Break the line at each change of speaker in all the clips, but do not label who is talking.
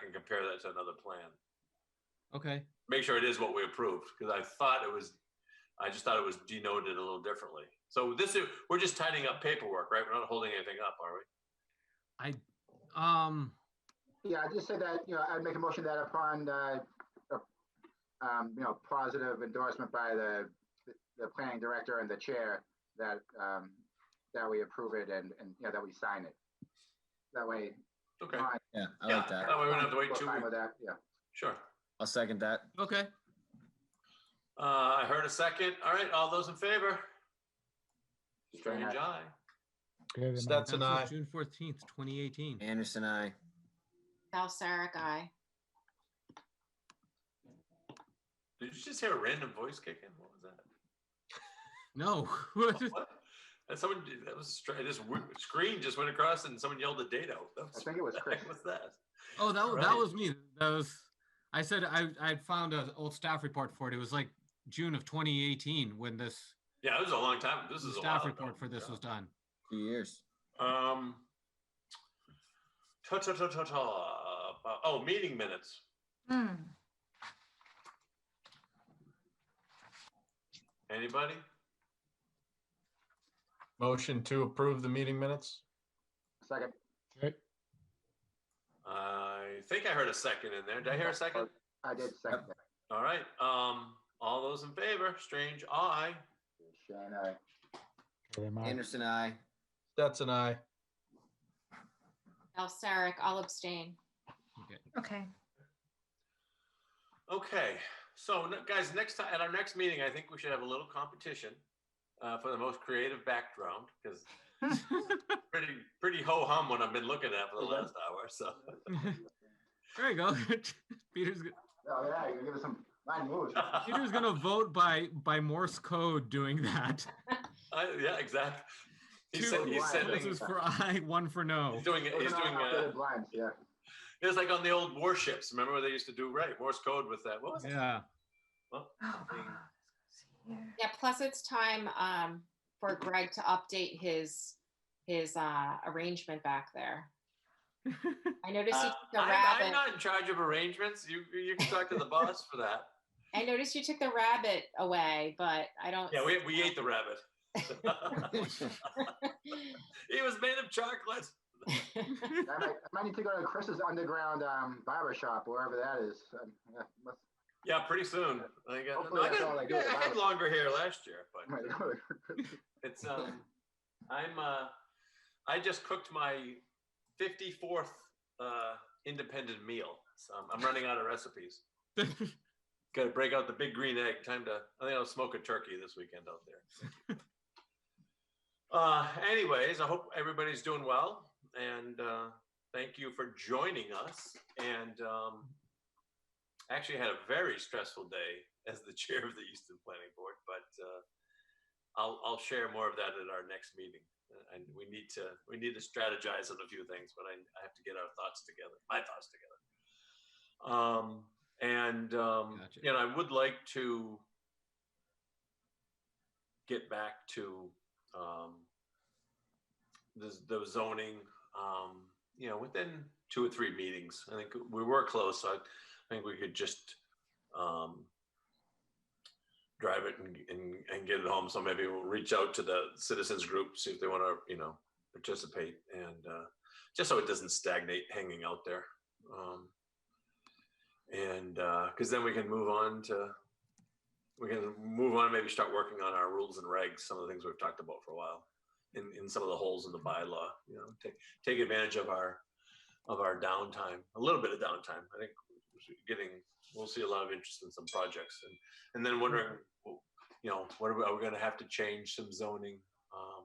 can compare that to another plan.
Okay,
Make sure it is what we approved, because I thought it was, I just thought it was denoted a little differently. So this is, we're just tidying up paperwork, right? We're not holding anything up, are we?
um,
Yeah, I just said that, you know, I'd make a motion that upon, uh, uh, um, you know, positive endorsement by the, the planning director and the chair, that, um, that we approve it and, and, you know, that we sign it. That way.
Okay,
Fine.
Yeah, I
Yeah.
like that.
That way we don't have to wait
We're
two
fine
weeks.
with that, yeah.
sure.
I'll second that.
okay.
Uh, I heard a second. All right, all those in favor? Strange eye.
That's
Stetson, aye.
June fourteenth, twenty eighteen.
Anderson, I.
Val Sarah guy.
Did you just hear a random voice kick in? What was that?
No. Oh,
What? That someone, that was strange. This weird- screen just went across and someone yelled a date out. That
I
was,
think it
what
was
the
Chris.
heck was that?
Oh, that, was
Right.
that was me. That was, I said, I, I found an old staff report for it. It was like June of twenty eighteen when this
Yeah, it was a long time. This is a
staff
while ago.
report for this was done.
Two years.
Um. Ta ta ta ta ta. Uh, Oh, meeting minutes. Anybody?
Motion to approve the meeting minutes?
Second.
I think I heard a second in there. Did I hear a second?
I did second that.
All right. Um. All those in favor? Strange eye.
Shane, aye.
Anderson, I.
Stetson, aye.
Val Sarah, I'll abstain.
Okay.
Okay, so n- guys, next time, at our next meeting, I think we should have a little competition uh, for the most creative background because pretty pretty ho hum what I've been looking at for the last hour. So
There you go. Peter's, g-
Oh, yeah, you're gonna give us some line moves.
Peter's gonna vote by, by Morse code doing that.
I, yeah, exactly. He's,
Two
sen- he's
lines.
sending.
This is for I, one for no.
He's doing it.
Those
He's
are
doing.
not
Uh,
updated Blinds, yeah.
it was like on the old warships. Remember what they used to do? Right, Morse code with that. What was it?
Yeah.
Oh, God. Yeah.
Yeah, plus it's time um for Greg to update his his uh arrangement back there. I noticed you
Uh,
took the
I, I'm
rabbit.
not in charge of arrangements. You you can talk to the boss for that.
I noticed you took the rabbit away, but I don't.
Yeah, we we ate the rabbit. He was made of chocolate.
I might, I might need to go to Chris's underground, um, barber shop, wherever that is. Um, yeah, must-
Yeah, pretty soon. I got, no,
Hopefully
I,
that's
got-
all I do
yeah,
is
I
buy
had
it. Oh
longer hair last year, but
might go to-
it's um, I'm uh, I just cooked my 54th uh, independent meal. So I'm, I'm running out of recipes. Got to break out the big green egg. Time to. I think I'll smoke a turkey this weekend out there. uh, anyways, I hope everybody's doing well, and uh, thank you for joining us. And um, actually, had a very stressful day as the chair of the Easton Planning Board, but uh, I'll I'll share more of that at our next meeting. Uh, And we need to we need to strategize on a few things, but I, I have to get our thoughts together, my thoughts together. Um, and um,
Gotcha.
you know, I would like to get back to um, the, the zoning, um, you know, within two or three meetings. I think we were close. So I, I think we could just um, drive it and, and, and get it home. So maybe we'll reach out to the citizens group, see if they want to, you know, participate and uh, just so it doesn't stagnate hanging out there. Um, and because then we can move on to, we can move on, and maybe start working on our rules and regs, some of the things we've talked about for a while in, in some of the holes in the bylaw, you know, take, take advantage of our, of our downtime, a little bit of downtime. I think getting, we'll see a lot of interest in some projects and, and then wondering, well, you know, what are we, are we gonna have to change some zoning? Um,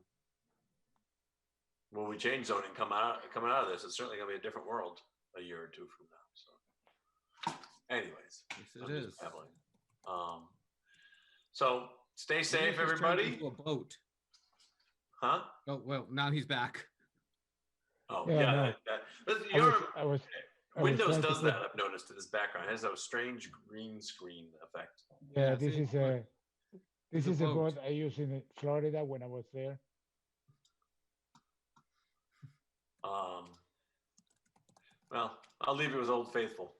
Will we change zoning come out, coming out of this? It's certainly gonna be a different world a year or two from now, so. Anyways.
Yes,
I'm
it
just
is.
babbling. Um, so stay safe,
Peter's turned
everybody.
into a Boat.
Huh?
Oh, well, now he's back.
Oh,
Yeah,
yeah.
no.
that- that- listen,
I
your
was, I was, I was
Windows
trying to
does
put-
that, I've noticed in this background. It has a strange green screen effect.
Yeah,
Yeah, this
see,
is
but
a, this
a
is a
boat.
boat I used in Florida when I was there.
Um, well, I'll leave it with Old Faithful.